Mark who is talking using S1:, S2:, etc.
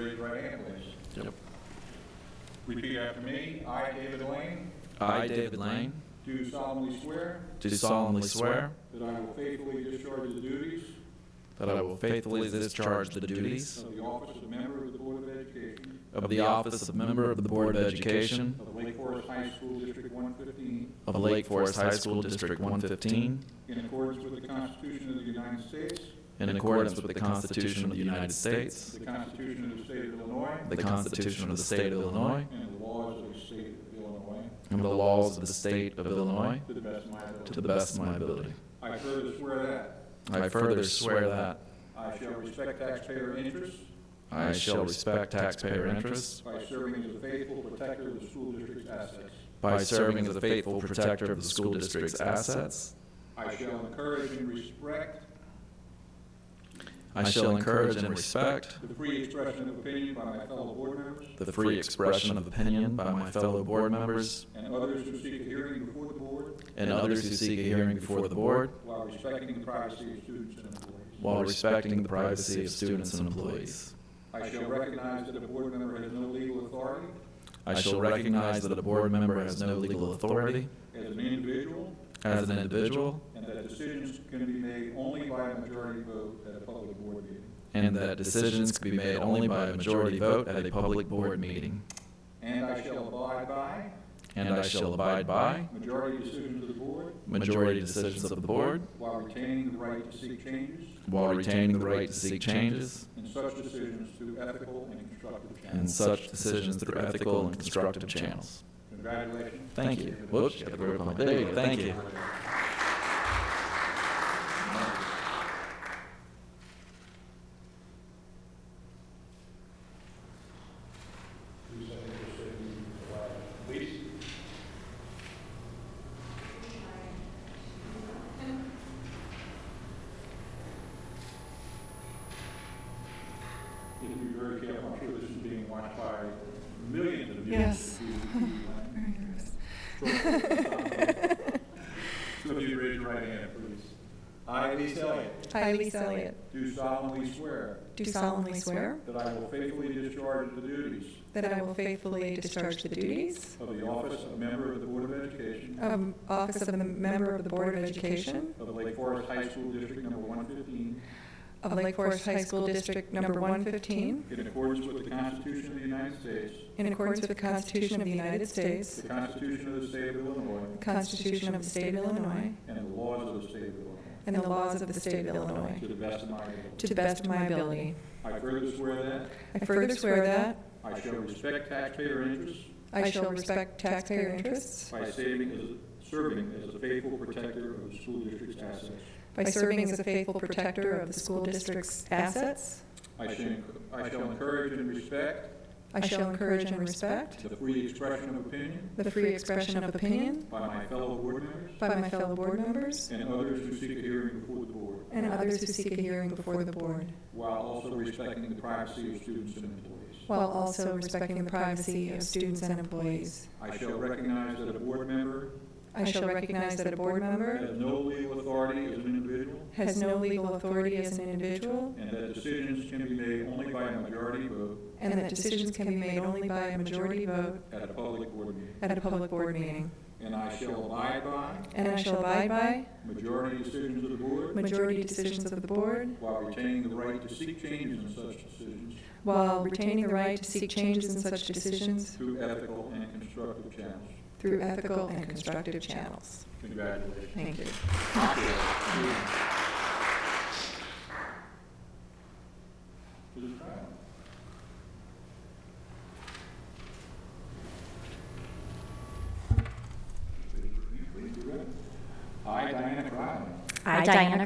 S1: English.
S2: Yep.
S1: Repeat after me. I, David Lane,
S2: I, David Lane,
S1: do solemnly swear
S2: do solemnly swear
S1: that I will faithfully discharge the duties
S2: that I will faithfully discharge the duties
S1: of the office of member of the Board of Education
S2: of the office of member of the Board of Education
S1: of Lake Forest High School District 115
S2: of Lake Forest High School District 115
S1: in accordance with the Constitution of the United States,
S2: in accordance with the Constitution of the United States,
S1: the Constitution of the State of Illinois,
S2: the Constitution of the State of Illinois,
S1: and the laws of the State of Illinois,
S2: and the laws of the State of Illinois
S1: to the best of my ability.
S2: to the best of my ability.
S1: I further swear that
S2: I further swear that
S1: I shall respect taxpayer interests
S2: I shall respect taxpayer interests
S1: by serving as a faithful protector of the school district's assets.
S2: by serving as a faithful protector of the school district's assets.
S1: I shall encourage and respect
S2: I shall encourage and respect
S1: the free expression of opinion by my fellow board members
S2: the free expression of opinion by my fellow board members
S1: and others who seek a hearing before the board
S2: and others who seek a hearing before the board
S1: while respecting the privacy of students and employees.
S2: while respecting the privacy of students and employees.
S1: I shall recognize that a board member has no legal authority
S2: I shall recognize that a board member has no legal authority
S1: as an individual
S2: as an individual
S1: and that decisions can be made only by a majority vote at a public board meeting.
S2: and that decisions can be made only by a majority vote at a public board meeting.
S1: And I shall abide by
S2: And I shall abide by
S1: majority decisions of the board
S2: majority decisions of the board
S1: while retaining the right to seek changes
S2: while retaining the right to seek changes
S1: in such decisions through ethical and constructive
S2: and
S1: channels.
S2: such decisions through ethical and constructive channels.
S1: Congratulations.
S2: Thank you. Whoops, got the grip on my- There you go. Thank you.
S1: Please, I think you're saving the flag. Please. If you're very careful, I'm sure this is being watched by millions of you.
S3: Yes.
S1: If you- So if you raise your right hand, please. I, Lee Elliott,
S3: I, Lisa Elliott,
S1: do solemnly swear
S3: do solemnly swear
S1: that I will faithfully discharge the duties
S3: that I will faithfully discharge the duties
S1: of the office of member of the Board of Education
S3: of office of the member of the Board of Education
S1: of Lake Forest High School District Number 115
S3: of Lake Forest High School District Number 115
S1: in accordance with the Constitution of the United States,
S3: in accordance with the Constitution of the United
S1: the
S3: States,
S1: Constitution of the State of Illinois,
S3: the Constitution of the State of Illinois,
S1: and the laws of the State of Illinois,
S3: and the laws of the State of Illinois,
S1: to the best of my ability.
S3: to the best of my ability.
S1: I further swear that
S3: I further swear that
S1: I shall respect taxpayer interests
S3: I shall respect taxpayer interests
S1: by saving as, serving as a faithful protector of the school district's assets.
S3: by serving as a faithful protector of the school district's assets.
S1: I shall, enc- I shall encourage and respect
S3: I shall encourage and respect
S1: the free expression of opinion
S3: the free expression of opinion
S1: by my fellow board members
S3: by my fellow board members
S1: and others who seek a hearing before the board,
S3: and others who seek a hearing before the board,
S1: while also respecting the privacy of students and employees.
S3: while also respecting the privacy of students and employees.
S1: I shall recognize that a board member
S3: I shall recognize that a board member
S1: has no legal authority as an individual
S3: has no legal authority as an individual
S1: and that decisions can be made only by a majority vote
S3: and that decisions can be made only by a majority vote
S1: at a public board meeting.
S3: at a public board meeting.
S1: And I shall abide by
S3: And I shall abide by
S1: majority decisions of the board
S3: majority decisions of the board
S1: while retaining the right to seek changes in such decisions
S3: while retaining the right to seek changes in such decisions
S1: through ethical and constructive channels.
S3: through ethical and constructive channels.
S1: Congratulations.
S3: Thank you.
S1: I, Diana Crowley.
S4: I, Diana